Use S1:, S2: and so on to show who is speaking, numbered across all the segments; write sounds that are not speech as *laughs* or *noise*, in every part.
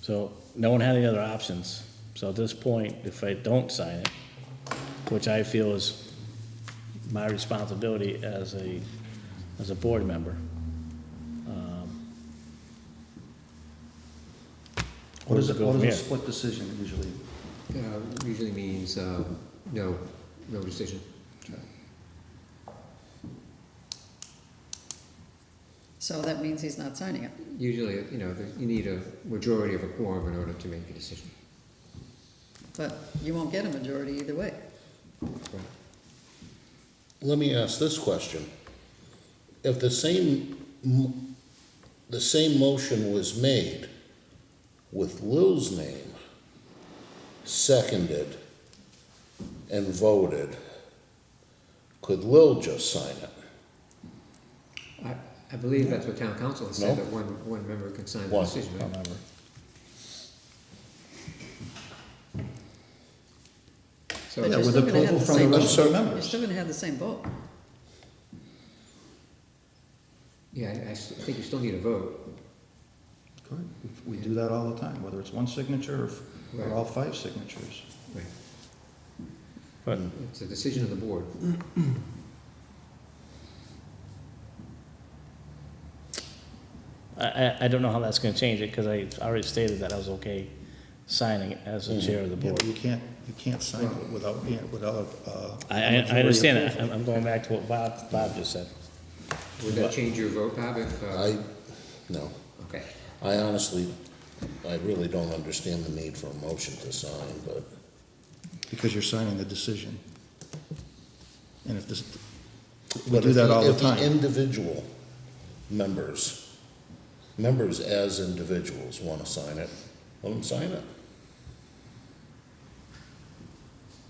S1: So no one had any other options. So at this point, if I don't sign it, which I feel is my responsibility as a, as a board member, um,
S2: What is,
S1: where
S2: it-
S1: do we
S2: what
S1: go from
S2: is a
S1: here?
S2: split decision usually?
S3: Uh, Usually means um, no, no decision.
S4: So that means he's not signing it.
S3: Usually, you know, there- you need a majority of a quorum in order to make a decision.
S4: But you won't get a majority either way.
S5: Let me ask this question. If the same, m- the same motion was made with Lil's name, seconded and voted, could Lil just sign it?
S3: I, I believe that's what town council has said,
S5: No.
S3: that one, one member can sign the
S5: One,
S3: decision. right?
S5: however.
S3: So it's
S4: But you're
S3: just-
S2: with
S4: still gonna have
S2: approval
S4: the
S2: from the
S4: same
S2: rest of the
S4: vote.
S2: members.
S4: You're still gonna have the same vote.
S3: Yeah, I- I s- I think you still need a vote.
S2: Correct. We do that all the time, whether it's one signature or f- or all five signatures.
S3: Right.
S1: But
S3: It's a decision of the board.
S1: I, I, I don't know how that's gonna change it, because I already stated that I was okay signing it as the chair of the
S2: Yeah,
S1: board.
S2: but you can't, you can't sign it without, being- without, uh.
S1: I, I, I understand that, I'm, I'm going back to what Bob, Bob just said.
S3: Would that change your vote, Bob, if, uh,
S5: I, no.
S3: okay.
S5: I honestly, I really don't understand the need for a motion to sign, but
S2: Because you're signing the decision. And if this, we
S5: But
S2: do
S5: if
S2: that all the
S5: if
S2: time.
S5: individual members, members as individuals want to sign it, let them sign it.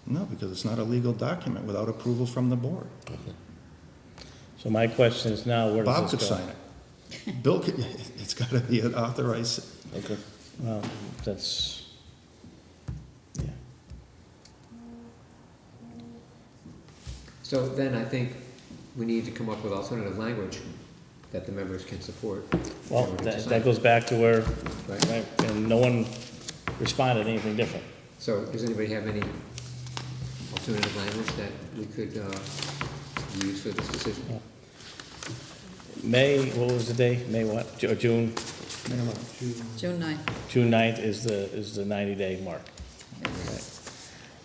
S2: No, because it's not a legal document without approval from the board.
S1: So my question is now, where does
S2: Bob could
S1: this go?
S2: sign it. Bill could, *laughs* it's gotta be an authorized,
S5: Okay.
S1: Well, that's, yeah.
S3: So then I think we need to come up with alternative language that the members can support. in
S1: Well,
S3: order to
S1: that,
S3: sign
S1: that
S3: it.
S1: goes back to where,
S3: Right.
S1: right, and no one responded anything different.
S3: So does anybody have any alternative language that we could uh, use for this decision?
S1: May, what was the day? May what? Ju- Or June,
S4: June ninth.
S1: June ninth is the, is the ninety-day mark. Right.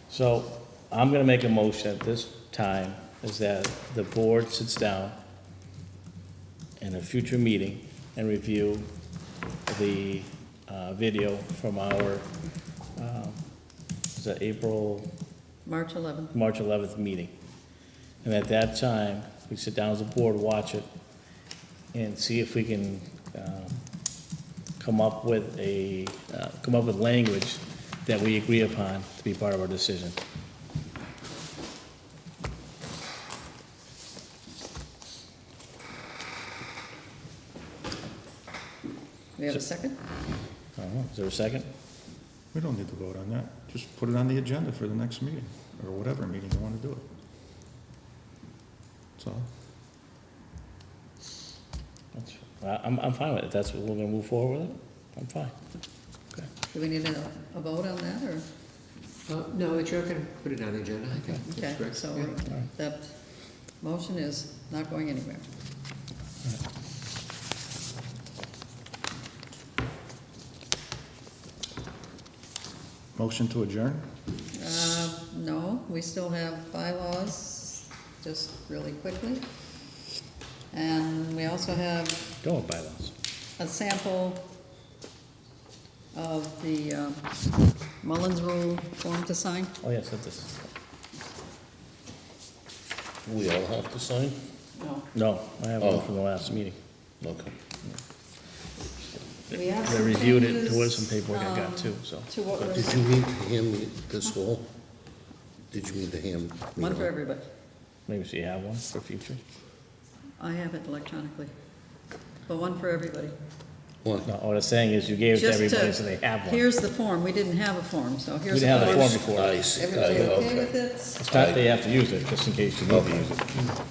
S1: So I'm gonna make a motion at this time, is that the board sits down in a future meeting and review the, uh, video from our, um, is that April
S4: March eleventh.
S1: March 11th meeting. And at that time, we sit down as a board, watch it, and see if we can um, come up with a, uh, come up with language that we agree upon to be part of our decision.
S4: We have a second?
S1: I don't know, Is there a second?
S2: we don't need to vote on that. Just put it on the agenda for the next meeting, or whatever meeting you wanna do it. That's all.
S1: That's- I- I'm, I'm fine with it. That's what we're gonna move forward with it? I'm fine.
S4: Do we need a, a vote on that, or,
S3: Uh, No, the chair can put it on the agenda, I think. that's
S4: okay,
S3: correct.
S4: so
S3: Yeah.
S4: that motion is not going anywhere.
S2: Motion to adjourn?
S4: Uh, no, we still have bylaws, just really quickly. And we also have
S1: Go with bylaws.
S4: a sample of the um, Mullins Rule form to sign.
S1: Oh, yes, that's this.
S5: We all have to sign?
S4: No,
S1: No, I have one from the last meeting.
S5: Okay.
S4: We have
S1: They
S4: some
S1: reviewed it. There was
S4: changes,
S1: some paperwork I got too,
S4: um,
S1: so.
S4: To what
S5: Did
S4: was,
S5: you mean to hand me this whole? Did you mean to hand? me
S4: one for
S5: all?
S4: everybody.
S1: Maybe so you have one for future?
S4: I have it electronically, but one for everybody.
S5: One.
S1: No, what I'm saying is you gave it to
S4: Just
S1: everybody, so they have one.
S4: Here's the form, we didn't have a form, so
S1: We
S4: here's the
S1: didn't
S4: form.
S1: have a form Uh, before.
S5: I see, I-
S4: Everybody okay
S5: okay.
S4: with it?
S1: It's not that you have to use it, just in case you need to use it.